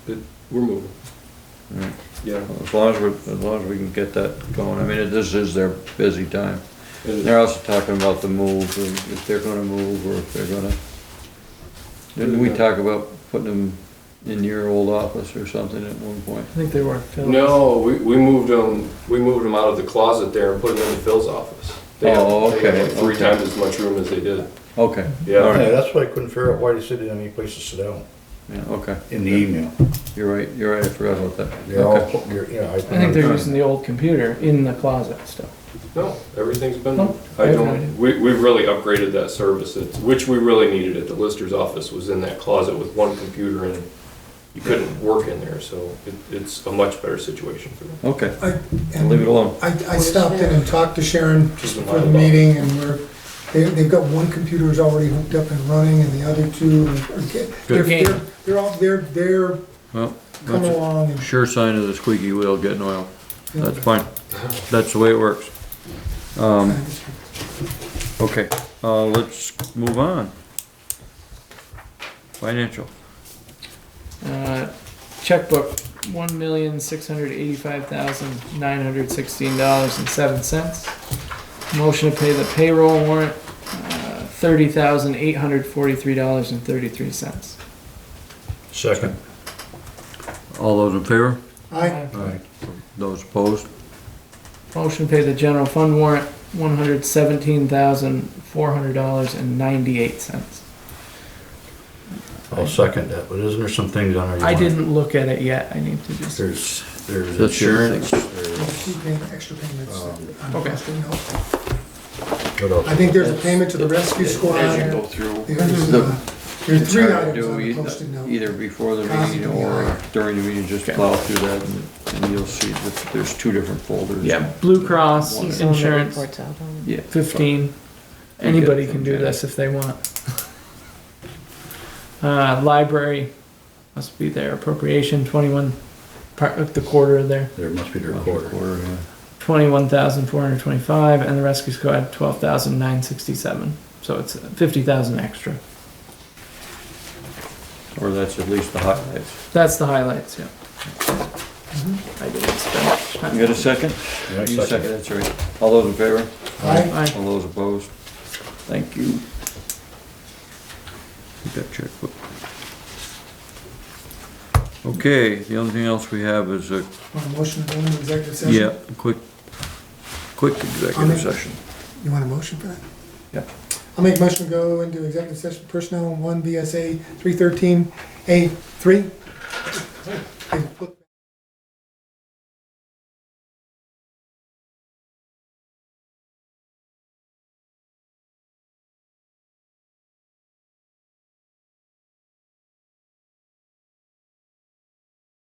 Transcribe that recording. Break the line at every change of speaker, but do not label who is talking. but we're moving.
Alright.
Yeah.
As long as we, as long as we can get that going, I mean, it- this is their busy time.
And
They're also talking about the move, and if they're gonna move, or if they're gonna, didn't we talk about putting them in your old office or something at one point?
I think they were. Phil.
No, we, we moved them, we moved them out of the closet there and put them in Phil's office. They have-
Oh,
they have
okay,
like Three
okay.
times as much room as they did.
Okay. All
Yeah,
right.
Yeah, that's why I couldn't figure out why they said they didn't have any place to sit down
Yeah, okay,
in the email.
you're right, you're right, I forgot about that.
They're all,
Okay.
they're- you know, I.
I think they're using the old computer in the closet still.
no, everything's been,
Oh,
I
I have no idea.
don't, we, we've really upgraded that service, it's, which we really needed at the Lister's office, was in that closet with one computer and you couldn't work in there, so it, it's a much better situation for them.
Okay,
I-
I'll leave it alone.
I, I stopped in and talked to Sharon just before the meeting, and we're, they, they've got one computer is already hooked up and running, and the other two are, are get- they're, they're, they're all, they're, they're
Well,
coming
that's
along and.
a sure sign of the squeaky wheel getting oil, that's fine, that's the way it works. Um, Okay, uh, let's move on. Financial.
Uh, checkbook, one million six hundred eighty-five thousand nine hundred sixteen dollars and seven cents. Motion to pay the payroll warrant, uh, thirty thousand eight hundred forty-three dollars and thirty-three cents.
Second.
All those in favor?
I,
Those opposed?
Motion to pay the general fund warrant, one hundred seventeen thousand four hundred dollars and ninety-eight cents.
I'll second that, but isn't there some things on there? you
I
wanna-
didn't look at it yet. I need to just.
There's, there's
That's your
insurance, there's,
keep paying extra payments.
Um,
on
Okay.
Western Health.
what else?
I think there's a payment to the rescue squad.
through.
There's,
The-
uh, there's three
Try to
items
do
on the
either-
posted note.
Either before the
Cost
meeting
of the
or
hour.
during the meeting, just plow through that and, and you'll see that there's two different folders.
Yeah. Blue Cross
He's the one that
Insurance,
reports out on it.
Yeah.
15. Anybody can do this if they want. Uh, library must be their appropriation, 21, part of the quarter there,
There must be their quarter.
Quarter, yeah.
21,425, and the rescue squad, 12,967. So it's 50,000 extra.
Or that's at least the highlights.
That's the highlights, yeah. I didn't
You
spend.
got a second?
Yeah,
You second, that's right. All those in favor?
I,
Aye.
All those opposed? Thank you. Keep that checkbook. Okay, the only thing else we have is a,
want a motion to go into executive session?
yeah, a quick, quick executive
Comment?
session.
You want a motion for that?
Yep.
I'll make a motion to go into executive session personnel one VSA three thirteen A three.